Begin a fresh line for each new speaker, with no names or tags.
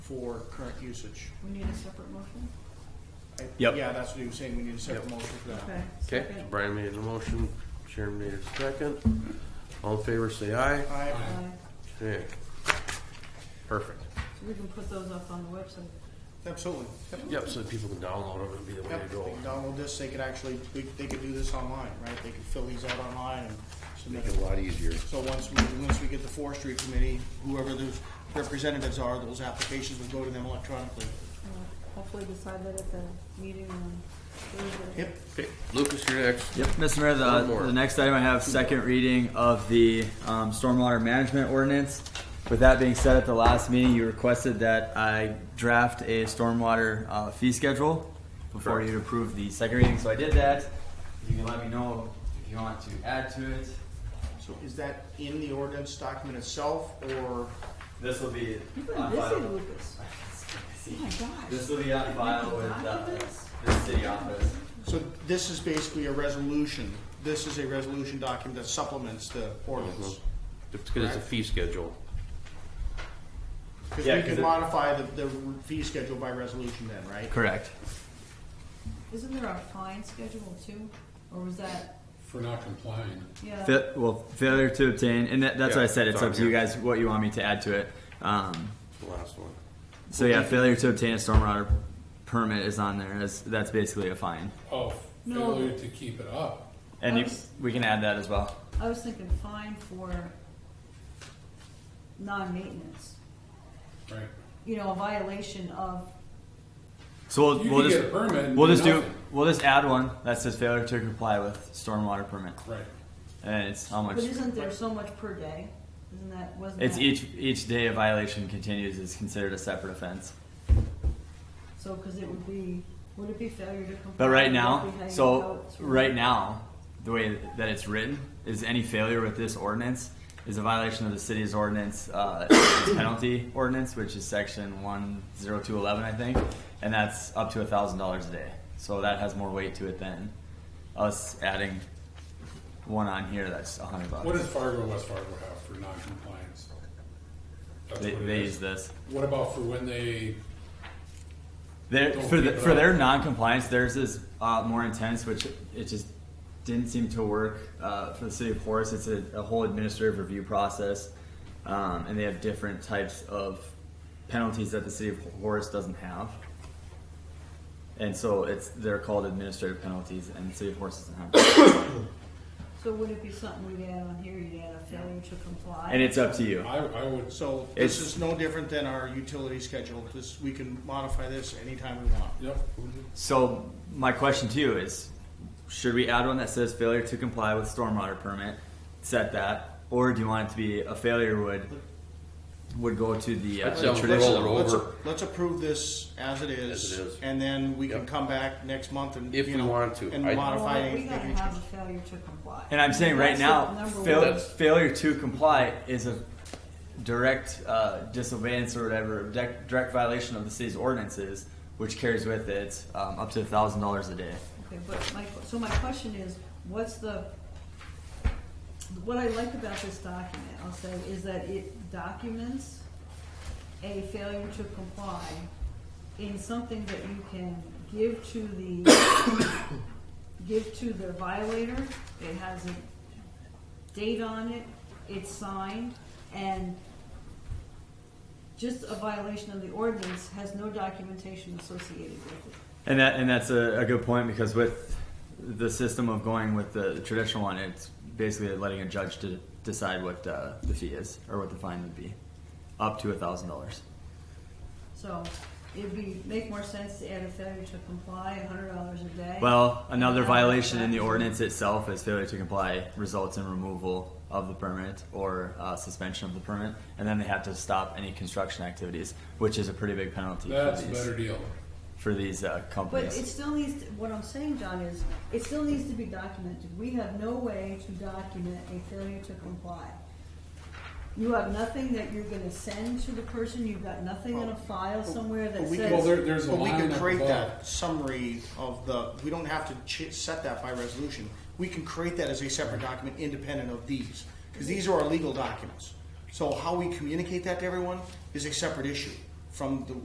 for current usage.
We need a separate motion?
I-
Yep.
Yeah, that's what he was saying, we need a separate motion for that.
Okay.
Okay,
second.
Brian made a motion, Sharon made a second. All in favor, say aye.
I,
Aye.
Okay. Perfect.
So we can put those up on the website.
absolutely. Yep.
Yep, so that people can download them and be the way
Yep,
to
they
go.
can download this, they could actually, they- they could do this online, right? They could fill these out online and submit
Make it
it.
a lot easier.
So once we, once we get the forestry committee, whoever those representatives are, those applications will go to them electronically.
Uh, Hopefully decide that at the meeting on Thursday.
Yep,
Okay, Lucas, you're next.
Yep, Mr. Mayor,
One
the,
more.
the next item I have second reading of the um, stormwater management ordinance. With that being said, at the last meeting, you requested that I draft a stormwater uh, fee schedule before you approve the second reading, so I did that. You can let me know if you want to add to it.
so is that in the ordinance document itself, or?
This will be
You've been
on
busy,
file.
Lucas. Oh my gosh.
This will be on file with uh, the city office.
So this is basically a resolution, this is a resolution document that supplements the
Mm-hmm.
ordinance.
It's because it's a fee schedule.
Because
Yeah,
we
'cause
could
it-
modify the, the fee schedule by resolution then, right?
Correct.
Isn't there a fine schedule too? Or was that,
for not complying.
yeah?
Fa- well, failure to obtain, and that, that's
Yeah,
what I said. It's
it's on
up to you
here.
guys what you want me to add to it. Um,
The last one.
So yeah, failure to obtain a stormwater permit is on there. As that's basically a fine,
Oh,
No.
failure to keep it up.
and you,
Oops.
we can add that as well.
I was thinking fine for non-maintenance,
Right.
you know, a violation of,
So we'll,
You
we'll
can
just
get a permit and
we'll
do
just do
nothing.
we'll just add one that says failure to comply with stormwater permit,
Right.
and it's how much.
but isn't there so much per day? Isn't that, wasn't that?
It's e- each each day a violation continues is considered a separate offense.
So, because it would be, would it be failure to comply?
But right now,
Would it be hanging
so
out?
right now, the way that it's written is any failure with this ordinance is a violation of the city's ordinance, uh, penalty ordinance, which is section one zero two eleven, I think. And that's up to a thousand dollars a day. So that has more weight to it than us adding one on here that's a hundred
What does
bucks.
Fargo, West Fargo have for non-compliance? That's
They,
what it
they
is.
use this.
What about for when they,
Their,
Don't
for the,
keep it
for
up.
their non-compliance, theirs is uh, more intense, which it just didn't seem to work uh, for the city of Horace. It's a, a whole administrative review process, um, and they have different types of penalties that the city of Horace doesn't have. And so it's they're called administrative penalties, and the city of Horace doesn't have. them.
So would it be something we'd add on here, you'd add a failure to comply?
and it's up to you.
I, I would,
So this
It's-
is no different than our utility schedule, this, we can modify this anytime we want.
yep,
So my question to you is, should we add one that says failure to comply with stormwater permit, set that, or do you want it to be a failure would would go to the?
I'd say
Uh,
we
traditional-
roll it
Let's-
over
Let's approve this as it
As it
is,
is.
and then we can
Yep.
come back next month and,
If
you
we
know,
wanted to.
And
I-
Well,
modify
we gotta
anything.
have a failure to comply.
and I'm saying right
That's
now,
the number
fail,
one.
failure to comply is a direct uh, disobeyance or whatever, direct, direct violation of the city's ordinances, which carries with it um, up to thousand dollars a day.
Okay, but my, so my question is, what's the, what I like about this document, I'll say, is that it documents a failure to comply in something that you can give to the, give to the violator. It has a date on it, it's signed, and just a violation of the ordinance has no documentation associated with it.
And that and that's a, a good point because with the system of going with the traditional one, it's basically letting a judge to decide what uh, the fee is or what the fine would be, up to a thousand dollars.
So it'd be, make more sense to add a failure to comply, a hundred dollars a day.
Well, another violation in the ordinance itself is failure to comply results in removal of the permit or uh, suspension of the permit, and then they have to stop any construction activities, which is a pretty big penalty
that's
for
a
these
better deal.
for these uh,
But
companies.
it still needs, to- what I'm saying, John, is it still needs to be documented. We have no way to document a failure to comply. You have nothing that you're gonna send to the person, you've got nothing in a file somewhere that
But we
says.
can-
Well, there- there's a
But we
line
can
up
create
above.
that summary of the, we don't have to ch- set that by resolution. We can create that as a separate document independent of these, because these are our legal documents. So how we communicate that to everyone is a separate issue from the